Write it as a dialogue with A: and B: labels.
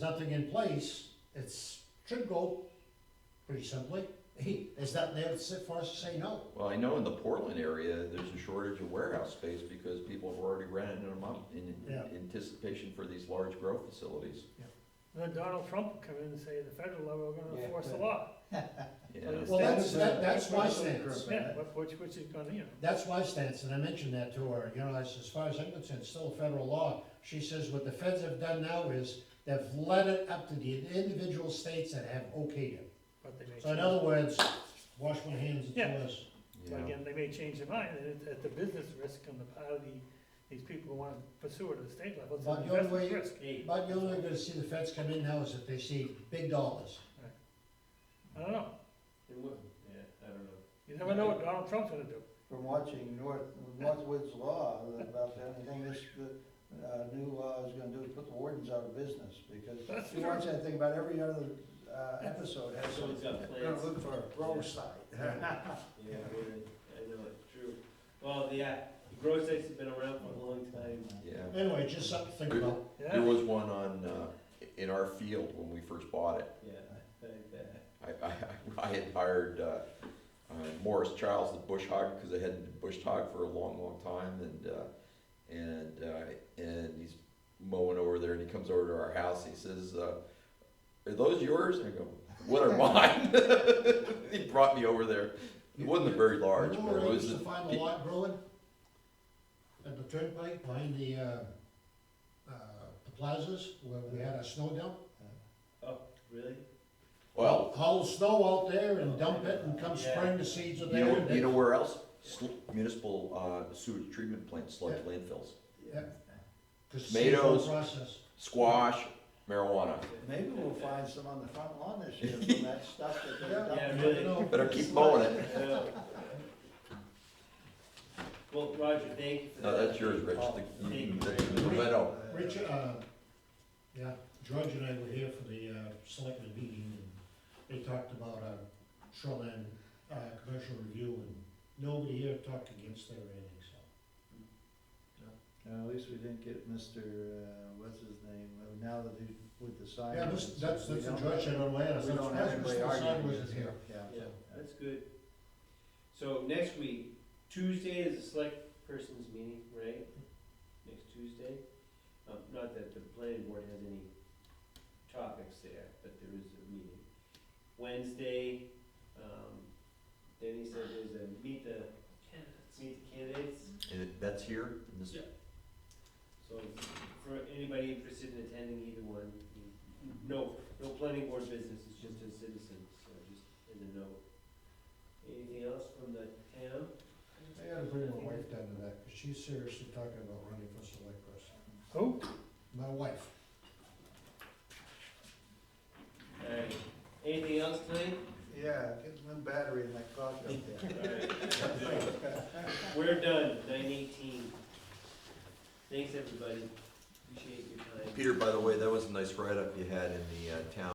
A: nothing in place, it's, should go pretty simply. It's not there to sit for us to say no.
B: Well, I know in the Portland area, there's a shortage of warehouse space because people have already rented them up in
A: Yeah.
B: anticipation for these large growth facilities.
C: Then Donald Trump will come in and say, at the federal level, we're gonna
D: Yeah,
C: enforce the
D: but-
C: law.
B: Yeah.
C: Well,
A: Well, that's, that- that's my
D: That's what I'm
A: stance.
D: saying.
C: Yeah, what- which, which is gonna, you know,
A: That's my stance, and I mentioned that to her, you know, I said, as far as I'm concerned, it's still federal law. She says what the feds have done now is they've let it up to the individual states that have okayed it.
C: but they may
A: So in
C: change.
A: other words, wash my hands, it's
C: Yeah.
A: yours.
B: Yeah.
C: But again, they may change their mind, and it's at the business risk on the part of the, these people who wanna pursue it at the state level, it's
A: But
C: an
A: the only
C: investment
A: way-
C: risk.
A: But you're only gonna see the feds come in now is if they see big dollars.
C: I don't know,
D: It wouldn't. Yeah, I don't know.
C: you never know what Donald Trump's gonna do.
E: from watching North, Northwood's law about the only thing this, the, uh, new law is gonna do is put the wardens out of business, because
C: That's
E: you watch that thing about every other, uh, episode has some,
D: Someone's got
E: they're
D: plans.
E: gonna look for a grow site.
D: Yeah, I mean, I know, it's true. Well, yeah, grow sites have been around for a long time.
B: Yeah.
A: Anyway, just something to think about.
B: There
C: Yeah,
B: was one on, uh, in our field when we first bought it.
D: Yeah, like that.
B: I, I, I had hired, uh, uh, Morris Childs, the bush hog, because I hadn't been bush hog for a long, long time, and, uh, and, uh, and he's mowing over there, and he comes over to our house, and he says, uh, are those yours? And I go, what are mine? He brought me over there, it wasn't very large,
A: You know
B: but
A: where
B: it
A: I
B: was,
A: used to find a lot growing? At the turnpike, behind the, uh, uh, the plazas, where we had a snow dump.
D: Really?
B: well,
A: Haul the snow out there and dump it, and come spring, the seeds are
B: you know, you
A: there.
B: know where else? Sl- Municipal, uh, sewage treatment plant sludge
A: Yeah.
B: landfills,
A: Yeah. 'cause it's
B: tomatoes.
A: seasonal Process.
B: squash, marijuana.
E: Maybe we'll find some on the front lawn this year from that stuff that they
A: Yeah.
E: dumped.
D: Yeah, really.
A: No.
B: Better keep mowing it.
D: Yeah. Well, Roger, thank you for
B: No,
D: that.
B: that's yours, Rich,
D: Oh,
B: the,
D: Thank you.
B: mm,
D: very
B: the, the
D: much.
B: Veto.
A: Rich, uh, yeah, George and I were here for the, uh, selectmen meeting, and they talked about, uh, shoreline, uh, commercial review, and nobody here talked against their rating, so.
E: Uh, at least we didn't get Mr., uh, what's his name, uh, now that he, with the sign.
A: Yeah, this, that's,
E: We
A: that's a
E: don't-
A: George said on land,
E: We
A: so
E: don't have anybody
A: Mr. Simon
E: arguing.
A: wasn't here.
D: Yeah, that's good. So next week, Tuesday is the select person's meeting, right? Next Tuesday? Um, not that the planning board has any topics there, but there is a meeting. Wednesday, um, Danny said there's a meet the, meet the candidates.
B: And it- that's here, in this-
D: Yeah. So for anybody interested in attending either one, no, no planning board business, it's just a citizen, so just in the know. Anything else from the town?
A: I gotta bring my wife down to that, cause she's seriously talking about running for select person.
C: who?
A: My wife.
D: Alright, anything else tonight?
E: Yeah, get one battery in that clock up there.
D: We're done, nine eighteen. Thanks, everybody, appreciate your time.
B: Peter, by the way, that was a nice write-up you had in the, uh, town